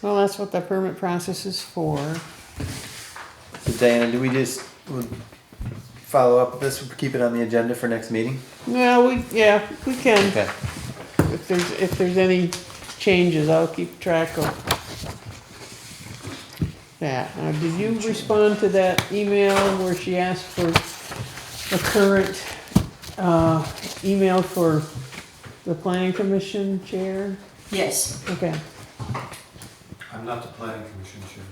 Well, that's what the permit process is for. So Diana, do we just we'll follow up this, keep it on the agenda for next meeting? No, we, yeah, we can, Okay. if there's, if there's any changes, I'll keep track of that. Now, did you respond to that email where she asked for the current, uh, email for the planning commission chair? Yes. Okay, I'm not the planning commission chair.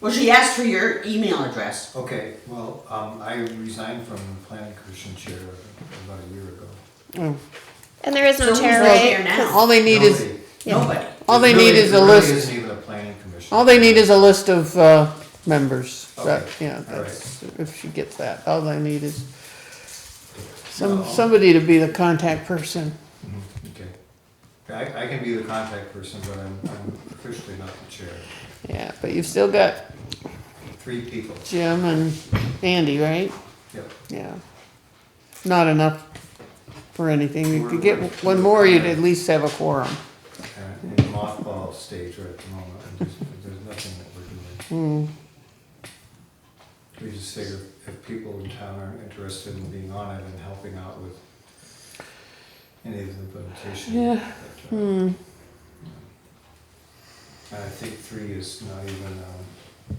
Well, she asked for your email address. Okay, well, um, I resigned from the planning commission chair about a year ago. Oh, And there is So no who's chair, right right? here now? all they need is, Nobody- Nobody. all they there need really- is a there really list, isn't even a planning commission. all they need is a list of, uh, members. That, Okay, yeah, all that's, if she gets that, all they need is Some, No. somebody to be the contact person. Mhm, Okay. I, I can be the contact person, but I'm, I'm officially not the chair. Yeah, but you've still got Three people, Jim and Andy, right? yep. Yeah. Not enough for anything. If you get one more, you'd at least have a quorum. And in mothball stage right at the moment, and there's, there's nothing that we're doing. Hmm. We just figure if people in town are interested in being on it and helping out with any of the implementation. Yeah. but, uh, Hmm, And I think three is not even, um,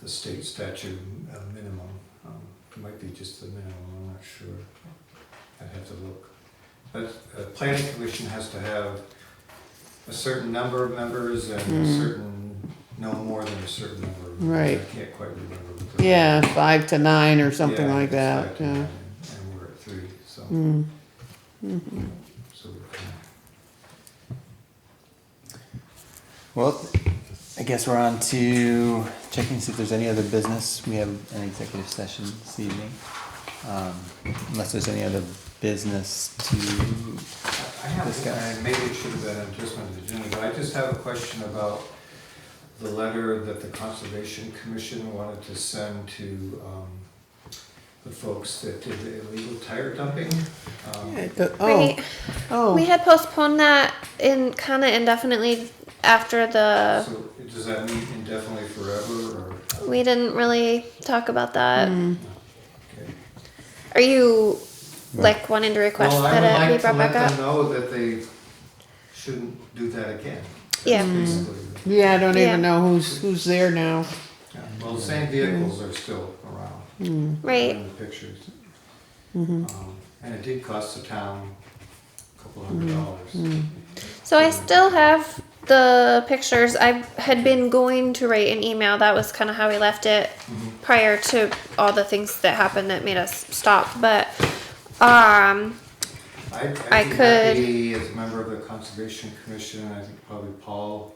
the state statute uh, minimum, um, it might be just the minimum, I'm not sure. I'd have to look. But a planning commission has to have a certain number of members and a Mm. certain, no more than a certain number. of members. Right. I can't quite remember. what the- yeah, five to nine or something Yeah, like it's that, five to yeah. nine, And we're at three, so, Hmm. so we're kind of. Well, I guess we're on to checking to see if there's any other business. We have an executive session this evening. Um, unless there's any other business to I have, discuss. and maybe it should have been on just on the agenda, but I just have a question about the letter that the Conservation Commission wanted to send to um, the folks that did the illegal tire dumping. Um, Yeah, the- Oh, Right. We oh, had postponed that in kind of indefinitely after the. So does that mean indefinitely forever, or? We didn't really talk about that. Hmm. Okay. Are you like wanting to request Well, I that it would be like to brought let back up? them know that they shouldn't do that again. Yeah. Basically, yeah, I don't Yeah. even know who's, who's there now. yeah. Well, the same vehicles are still around. Hmm. Right. Mm-hmm. in the pictures. Um, And it did cost the town a couple hundred Mm-hmm. dollars. So I still have the pictures. I had been going to write an email. That was kind of how we left it Mm-hmm. prior to all the things that happened that made us stop. But um, I, I I think could- Becky, as a member of the Conservation Commission, I think probably Paul,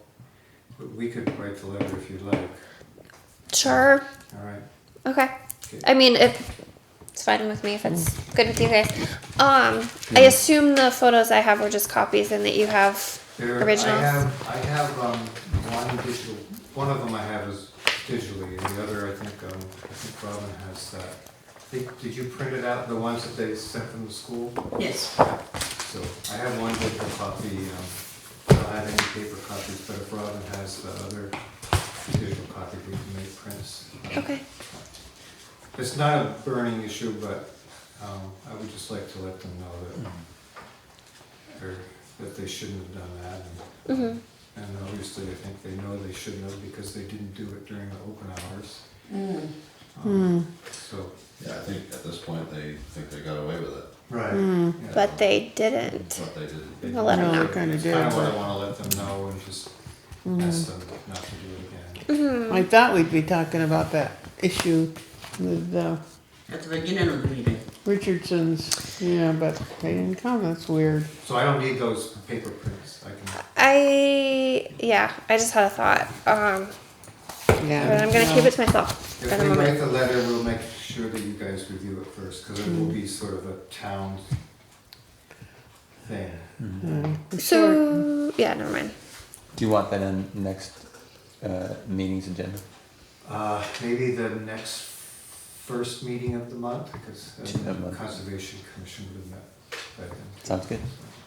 but we could write the letter if you'd like, sure. all right? Okay. Mm. Okay. I mean, if it's fine with me, if it's good with you guys. Um, I assume the photos I have were just copies, and that you have There- I originals. have, I have, um, one digital, one of them I have is digitally, and the other, I think, um, I think Robin has that. I think- Did you print it out, the ones that they sent from the school? Yes. So I have one paper copy, um, I don't have any paper copies, but if Robin has the other digital copy, we can make prints. Okay. It's not a burning issue, but, um, I would just like to let them know that, or that they shouldn't have done that. Mm-hmm. And and obviously, I think they know they shouldn't have because they didn't do it during the open hours. Mm. Um, Hmm. So. Yeah, I think at this point, they think they got away with it, Right. Hmm. But they didn't. but they didn't. I'll let 'em No, know. I kinda did, Kind of what but- I wanna let them know and just Mm-hmm. ask them not to do it again. I thought we'd be talking about that issue with, uh, At the beginning of the meeting. Richardson's, yeah, but they didn't come, that's weird. So I don't need those paper prints, I can, I yeah. I just had a thought. Um, Yeah. but I'm gonna keep no. it to myself for if the we write moment. the letter, we'll make sure that you guys review it first, cause it will be sort of a town thing. So yeah, never mind. hmm. Do you want that in next uh, meeting's agenda? Uh, maybe the next first meeting of the month, uh, because Of the month. Conservation Commission would have met by then. Sounds good. So.